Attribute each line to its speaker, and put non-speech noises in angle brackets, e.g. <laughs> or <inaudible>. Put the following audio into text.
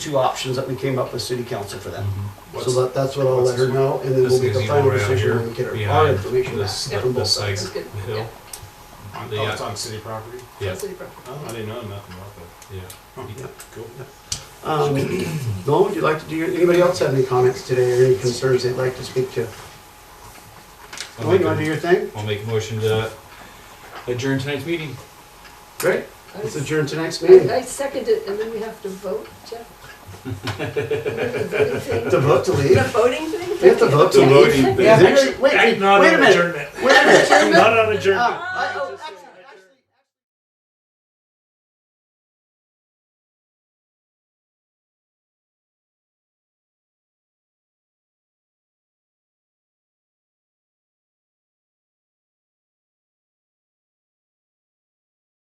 Speaker 1: two options that we came up with city council for them. So
Speaker 2: What's-
Speaker 1: that, that's what I'll let her know, and then
Speaker 2: This
Speaker 1: we'll make
Speaker 2: is
Speaker 1: the
Speaker 2: even
Speaker 1: final
Speaker 2: around
Speaker 1: decision
Speaker 2: here
Speaker 1: when we get our- our
Speaker 2: behind
Speaker 1: information back
Speaker 2: this-
Speaker 1: from both
Speaker 2: this
Speaker 1: sides.
Speaker 2: side
Speaker 3: That's good,
Speaker 2: hill.
Speaker 4: On,
Speaker 2: The,
Speaker 4: oh,
Speaker 2: uh,
Speaker 4: it's on city property?
Speaker 2: Yeah,
Speaker 3: City property.
Speaker 4: Oh, I didn't know nothing about that.
Speaker 2: yeah.
Speaker 1: Yeah.
Speaker 4: Cool.
Speaker 1: Um, Noel, would you like to do, your- anybody else have any comments today or any concerns they'd like to speak to?
Speaker 2: I'll
Speaker 1: Noel,
Speaker 2: make
Speaker 1: you wanna do
Speaker 2: a-
Speaker 1: your thing?
Speaker 2: I'll make a motion to adjourn tonight's meeting.
Speaker 1: Great, let's
Speaker 3: I-
Speaker 1: adjourn tonight's meeting.
Speaker 3: <laughs> I I second it, and then we have to vote,
Speaker 1: <laughs>
Speaker 3: Jeff? The voting thing?
Speaker 1: To vote to
Speaker 2: <laughs>
Speaker 3: The
Speaker 1: leave?
Speaker 3: voting thing?
Speaker 1: We have to vote to
Speaker 3: Yeah,
Speaker 1: leave?
Speaker 3: you
Speaker 2: voting
Speaker 3: second-
Speaker 2: thing.
Speaker 1: Yeah, actually, wait, wait,
Speaker 4: Act
Speaker 1: wait
Speaker 4: not
Speaker 1: a
Speaker 4: on
Speaker 1: minute,
Speaker 4: adjournment.
Speaker 1: wait a minute.
Speaker 4: Not on adjournment.
Speaker 1: Uh,